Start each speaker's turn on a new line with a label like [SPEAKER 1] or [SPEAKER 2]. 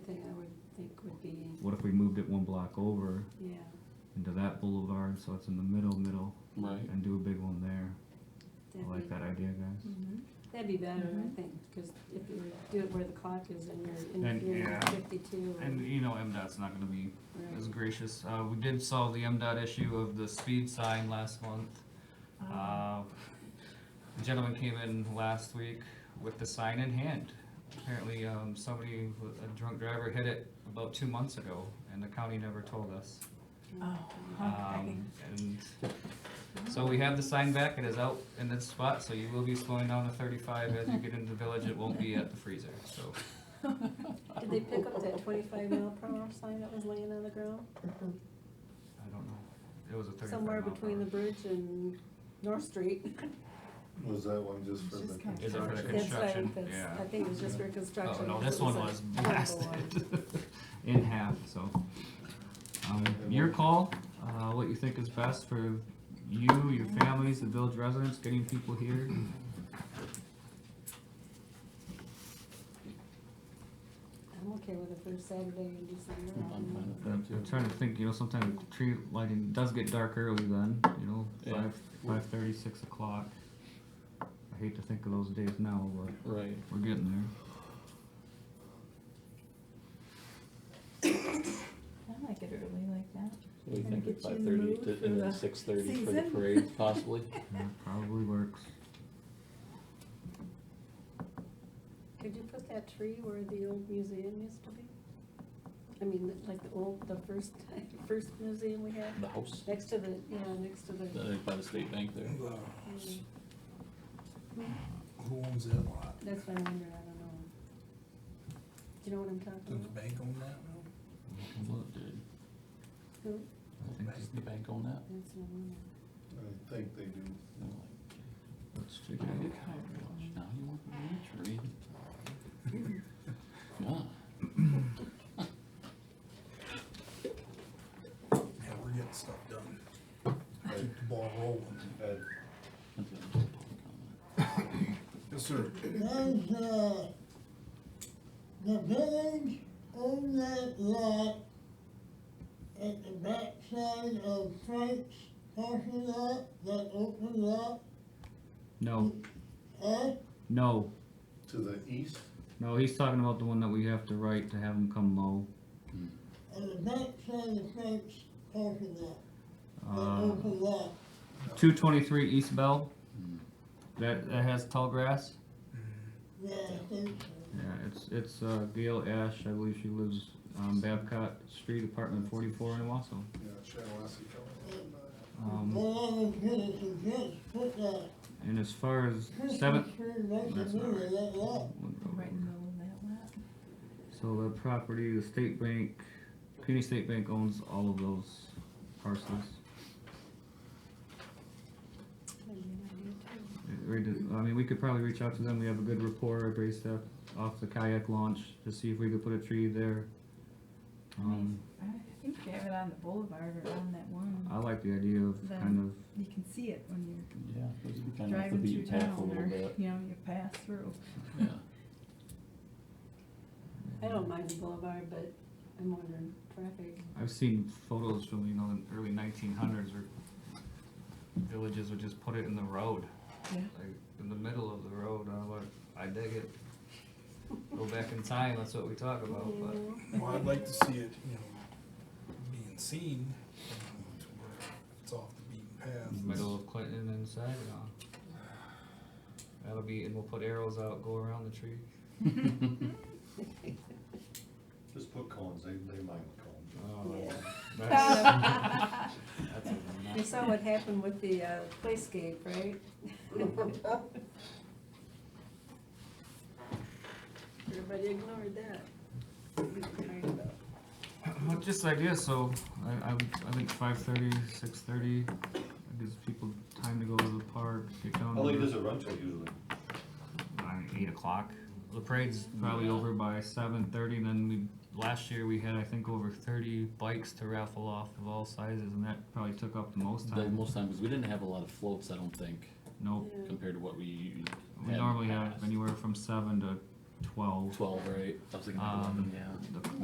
[SPEAKER 1] what if we moved it one block over
[SPEAKER 2] yeah.
[SPEAKER 1] into that boulevard, so it's in the middle, middle,
[SPEAKER 3] Right.
[SPEAKER 1] and do a big one there?
[SPEAKER 2] that'd
[SPEAKER 1] I like
[SPEAKER 2] be-
[SPEAKER 1] that idea, guys.
[SPEAKER 2] Mhm. That'd be better, I think, because if you do it where the clock is and you're in
[SPEAKER 1] And,
[SPEAKER 2] interfering with
[SPEAKER 1] yeah.
[SPEAKER 2] fifty-two. or-
[SPEAKER 1] And you know, MDOT's not gonna be
[SPEAKER 2] right.
[SPEAKER 1] as gracious. Uh, we did solve the MDOT issue of the speed sign last month. Uh, the gentleman came in last week with the sign in hand. Apparently, um, somebody, a drunk driver hit it about two months ago, and the county never told us. Um, and so we have the sign back, it is out in its spot, so you will be slowing down to thirty-five as you get into the village, it won't be at the freezer, so.
[SPEAKER 2] Did they pick up that twenty-five mile per hour sign that was laying on the ground?
[SPEAKER 1] I don't know, it was a thirty-five
[SPEAKER 2] Somewhere
[SPEAKER 1] mile per
[SPEAKER 2] between the
[SPEAKER 1] hour.
[SPEAKER 2] bridge and North Street.
[SPEAKER 4] Was that one just for
[SPEAKER 5] It's
[SPEAKER 4] the
[SPEAKER 5] just kind of-
[SPEAKER 1] Is it for the
[SPEAKER 4] construction?
[SPEAKER 2] That's why I-
[SPEAKER 1] construction?
[SPEAKER 2] that's-
[SPEAKER 1] Yeah.
[SPEAKER 2] I think it was just for
[SPEAKER 1] Oh,
[SPEAKER 2] construction.
[SPEAKER 1] no,
[SPEAKER 2] because
[SPEAKER 1] this
[SPEAKER 2] it
[SPEAKER 1] one
[SPEAKER 2] a
[SPEAKER 1] was
[SPEAKER 2] horrible one.
[SPEAKER 1] blasted in half, so. Um, your call, uh, what you think is best for you, your families, the village residents, getting people here.
[SPEAKER 2] I'm okay with the first Saturday in December.
[SPEAKER 3] I'm fine with that.
[SPEAKER 1] I'm I'm trying to think, you know, sometimes tree lighting does get dark early then, you know,
[SPEAKER 3] Yeah.
[SPEAKER 1] five, five thirty, six o'clock. I hate to think of those days now, but
[SPEAKER 3] Right.
[SPEAKER 1] we're getting there.
[SPEAKER 5] I like it early like that.
[SPEAKER 3] What do you
[SPEAKER 2] Kinda
[SPEAKER 3] think at
[SPEAKER 2] gets you
[SPEAKER 3] five
[SPEAKER 2] in the
[SPEAKER 3] thirty
[SPEAKER 2] mood
[SPEAKER 3] to,
[SPEAKER 2] for
[SPEAKER 3] and then
[SPEAKER 2] the
[SPEAKER 3] six thirty for the
[SPEAKER 2] season.
[SPEAKER 3] parade possibly?
[SPEAKER 1] That probably works.
[SPEAKER 2] Could you put that tree where the old museum used to be? I mean, like the old, the first, first museum we had,
[SPEAKER 3] The house,
[SPEAKER 2] next to the, yeah, next to the.
[SPEAKER 3] the- by the state bank there.
[SPEAKER 2] mm,
[SPEAKER 6] uh, Who owns that lot?
[SPEAKER 2] That's what I wonder, I don't know. Do you know what I'm talking
[SPEAKER 6] Did the
[SPEAKER 2] about?
[SPEAKER 6] bank own that now?
[SPEAKER 3] Well, it did.
[SPEAKER 2] No,
[SPEAKER 3] I think does the bank own that?
[SPEAKER 2] That's what I wonder.
[SPEAKER 4] I think they do.
[SPEAKER 3] No, like,
[SPEAKER 1] Let's
[SPEAKER 3] you
[SPEAKER 1] take
[SPEAKER 3] gotta
[SPEAKER 1] a
[SPEAKER 3] get
[SPEAKER 1] look.
[SPEAKER 3] covered much. Now you want the tree. Yeah.
[SPEAKER 6] Yeah, we're getting stuff done. Keep the ball rolling.
[SPEAKER 4] Ed,
[SPEAKER 3] that's a public comment.
[SPEAKER 6] Yes, sir.
[SPEAKER 7] Does, uh, the village own that lot at the backside of Frank's parking lot, that open lot,
[SPEAKER 1] No,
[SPEAKER 7] huh?
[SPEAKER 1] no,
[SPEAKER 4] To the east?
[SPEAKER 1] no, he's talking about the one that we have to write to have him come mow.
[SPEAKER 7] At the backside of Frank's parking lot, that
[SPEAKER 1] Uh,
[SPEAKER 7] open lot.
[SPEAKER 1] Two twenty-three East Bell. That, that has tall grass.
[SPEAKER 7] Yeah, I think so.
[SPEAKER 1] Yeah, it's, it's, uh, Gail Ash, I believe she lives on Babcock Street, apartment forty-four in Wausau.
[SPEAKER 4] Yeah, Chanawasi County.
[SPEAKER 1] Um,
[SPEAKER 7] Well, I was gonna suggest put that
[SPEAKER 1] and as far as
[SPEAKER 7] Christmas
[SPEAKER 1] seventh.
[SPEAKER 7] tree right in the
[SPEAKER 1] That's not
[SPEAKER 7] middle of
[SPEAKER 1] right.
[SPEAKER 7] that lot.
[SPEAKER 5] Right in the middle of that lot.
[SPEAKER 1] So the property, the state bank, community state bank owns all of those parcels.
[SPEAKER 2] That'd be an idea too.
[SPEAKER 1] It really does- I mean, we could probably reach out to them, we have a good rapport based up off the kayak launch to see if we could put a tree there. Um,
[SPEAKER 5] I think they have it on the boulevard or on that one.
[SPEAKER 1] I like the idea of
[SPEAKER 5] Then-
[SPEAKER 1] kind of
[SPEAKER 5] You can see it when you're
[SPEAKER 3] Yeah, those would be kind of off the
[SPEAKER 5] driving through
[SPEAKER 3] beaten path a
[SPEAKER 5] town
[SPEAKER 3] little
[SPEAKER 5] or,
[SPEAKER 3] bit,
[SPEAKER 5] you know, you pass through.
[SPEAKER 3] yeah.
[SPEAKER 2] I don't mind the boulevard, but I'm wondering, traffic.
[SPEAKER 1] I've seen photos from, you know, the early nineteen hundreds where villages would just put it in the road,
[SPEAKER 5] Yeah.
[SPEAKER 1] like, in the middle of the road, and I'm like, I dig it. Go back in time, that's what we talk about, but
[SPEAKER 2] Yeah.
[SPEAKER 6] Well, I'd like to see it, you know, being seen, um, to where it's off the beaten path.
[SPEAKER 1] middle of Clinton and Saginaw. That'll be, and we'll put arrows out, go around the tree.
[SPEAKER 4] Just put cones, they, they mind the cones.
[SPEAKER 1] Oh,
[SPEAKER 2] Yeah.
[SPEAKER 1] that's- that's a
[SPEAKER 2] You
[SPEAKER 1] nice-
[SPEAKER 2] saw what happened with the uh, playscape, right? Everybody ignored that. We complained about.
[SPEAKER 1] Well, Uh, just idea, so I, I, I think five thirty, six thirty, gives people time to go to the park, get down. to
[SPEAKER 4] How late
[SPEAKER 1] the-
[SPEAKER 4] does it run till usually?
[SPEAKER 1] nine, eight o'clock. The parade's probably over by seven thirty. And then we last year we had I think over thirty bikes to raffle off of all sizes, and that probably took up the most
[SPEAKER 3] The
[SPEAKER 1] time.
[SPEAKER 3] most time, because we didn't have a lot of floats, I don't think,
[SPEAKER 1] nope,
[SPEAKER 2] Yeah.
[SPEAKER 3] compared to what we u- had.
[SPEAKER 1] we
[SPEAKER 3] in
[SPEAKER 1] normally
[SPEAKER 3] the
[SPEAKER 1] have
[SPEAKER 3] past.
[SPEAKER 1] anywhere from seven to twelve.
[SPEAKER 3] Twelve, right? I was thinking
[SPEAKER 1] Um,
[SPEAKER 3] eleven, yeah.
[SPEAKER 1] The-